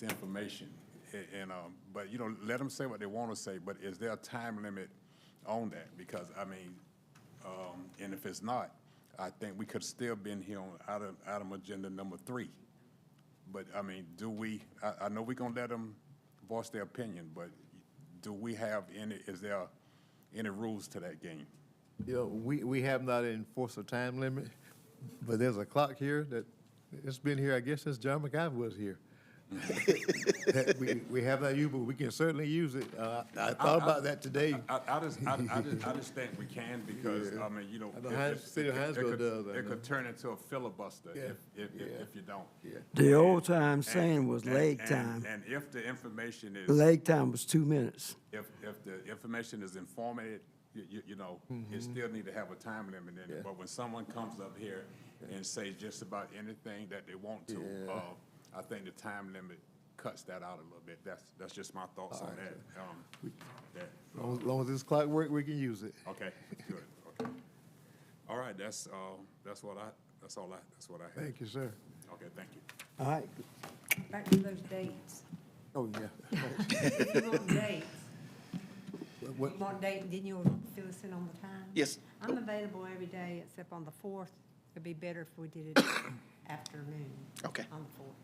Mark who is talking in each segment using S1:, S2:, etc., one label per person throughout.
S1: It's information, a- and, um, but, you know, let them say what they want to say, but is there a time limit on that? Because, I mean, um, and if it's not, I think we could still been here on item, item agenda number three. But, I mean, do we, I, I know we gonna let them voice their opinion, but do we have any, is there any rules to that game?
S2: You know, we, we have not enforced a time limit, but there's a clock here that, it's been here, I guess, since John McIver was here. That We, we have that used, but we can certainly use it. Uh, I thought about that today.
S1: I, I just, I, I just, I just think we can because, I mean, you know.
S2: I know
S1: it-
S2: Hines-
S1: it-
S2: City of
S1: it- it
S2: Hinesville
S1: could-
S2: does that,
S1: It
S2: no?
S1: could turn into a filibuster
S2: Yeah,
S1: if, if, if
S2: yeah.
S1: if you don't.
S2: Yeah.
S3: The old time
S1: And-
S3: saying was
S1: and-
S3: leg
S1: and-
S3: time.
S1: And if the information is,
S3: Leg time was two minutes.
S1: if, if the information is informative, you, you, you know, you still need to have a time limit in
S2: Mm-hmm. Yeah.
S1: it. But when someone comes up here and says just about anything that they want to,
S2: Yeah.
S1: uh, I think the time limit cuts that out a little bit. That's, that's just my thoughts on that. Um, that,
S2: Long, as- long as this clock work, we can use it.
S1: Okay, good, okay. All right, that's, uh, that's what I, that's all I, that's what I had.
S2: Thank you, sir.
S1: Okay, thank you.
S3: All right,
S4: Back to those dates.
S2: Oh, yeah.
S4: If you want dates, you
S2: What,
S4: want dates, then you'll fill us in on the time?
S5: Yes.
S4: I'm available every day except on the fourth. It'd be better if we did it afternoon.
S5: Okay.
S4: On the fourth.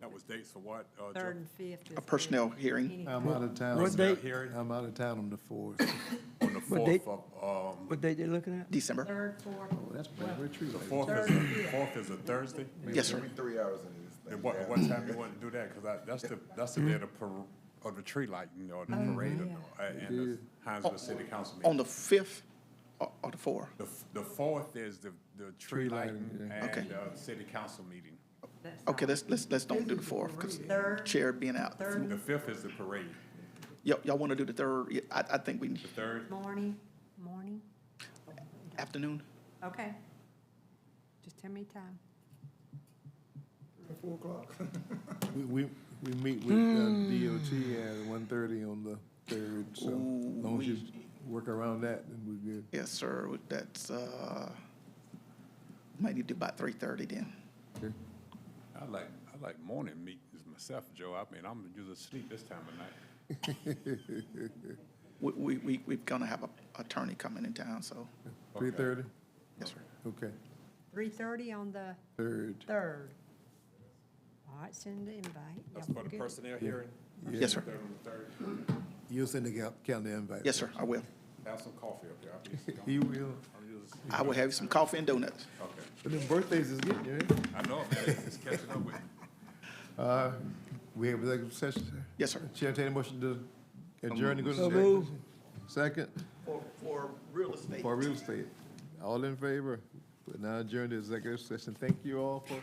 S1: That was dates for what? uh, Joe?
S4: Third and fifth is.
S5: A personnel
S4: good.
S5: hearing.
S4: Any-
S2: I'm out of town.
S3: What date?
S1: Hearing?
S2: I'm out of town on the fourth.
S1: On the
S3: date?
S1: fourth of, um,
S3: what date they looking at?
S5: December.
S4: Third, fourth.
S2: That's bad retreat.
S1: the fourth is, a- fourth is a Thursday?
S5: Yes, sir.
S6: Three hours in this thing.
S1: And what, what time you want to do that? Cause I, that's the, that's the day of the par, of the tree lighting or the parade or,
S4: Oh, yeah.
S1: the- and the Hinesville City Council
S5: On
S1: meeting.
S5: the 5th or or the 4th?
S1: The, f- the fourth is the, the tree
S2: Tree lighting,
S1: lighting
S2: yeah.
S1: and,
S5: Okay.
S1: uh, city council meeting.
S4: That's
S5: Okay,
S4: fine.
S5: let's, let's, let's don't do the 4th because
S4: Third.
S5: chair being out.
S4: Third
S1: The fifth is the parade,
S5: Y'all, y'all want to do the 3rd? Yeah, I, I think we,
S1: the third,
S4: morning, morning.
S5: afternoon?
S4: Okay. Just tell me time.
S2: We, we, we meet with uh, DOT at one thirty on the third, so as long as you work around that, then we're good.
S5: Yes, sir. That's, uh, might need to do about 3:30 then.
S1: I like, I like morning meetings myself, Joe. I mean, I'm usually asleep this time of night.
S5: We, we, we, we're gonna have a attorney coming in town, so,
S2: Three thirty?
S5: yes, sir.
S2: Okay,
S4: Three thirty on the
S2: third.
S4: third. All right, send the invite.
S1: That's
S4: Y'all
S1: for the
S4: good?
S1: personnel hearing?
S5: Yes, sir.
S1: Third on the third.
S2: You'll send the cal- calendar invite.
S5: Yes, sir, I will.
S1: Have some coffee up there. I'll be-
S2: He will.
S1: I'm just-
S5: I will have you some coffee and donuts.
S1: Okay.
S2: But them birthdays is getting you, eh?
S1: I know, man. It's catching up with me.
S2: Uh, we have executive session, sir?
S5: Yes, sir.
S2: Chair, take a motion to adjourn to go to
S3: So
S2: executive
S3: moved.
S2: session. Second,
S5: For, for real estate.
S2: for real estate. All in favor? But now adjourn to executive session. Thank you all for.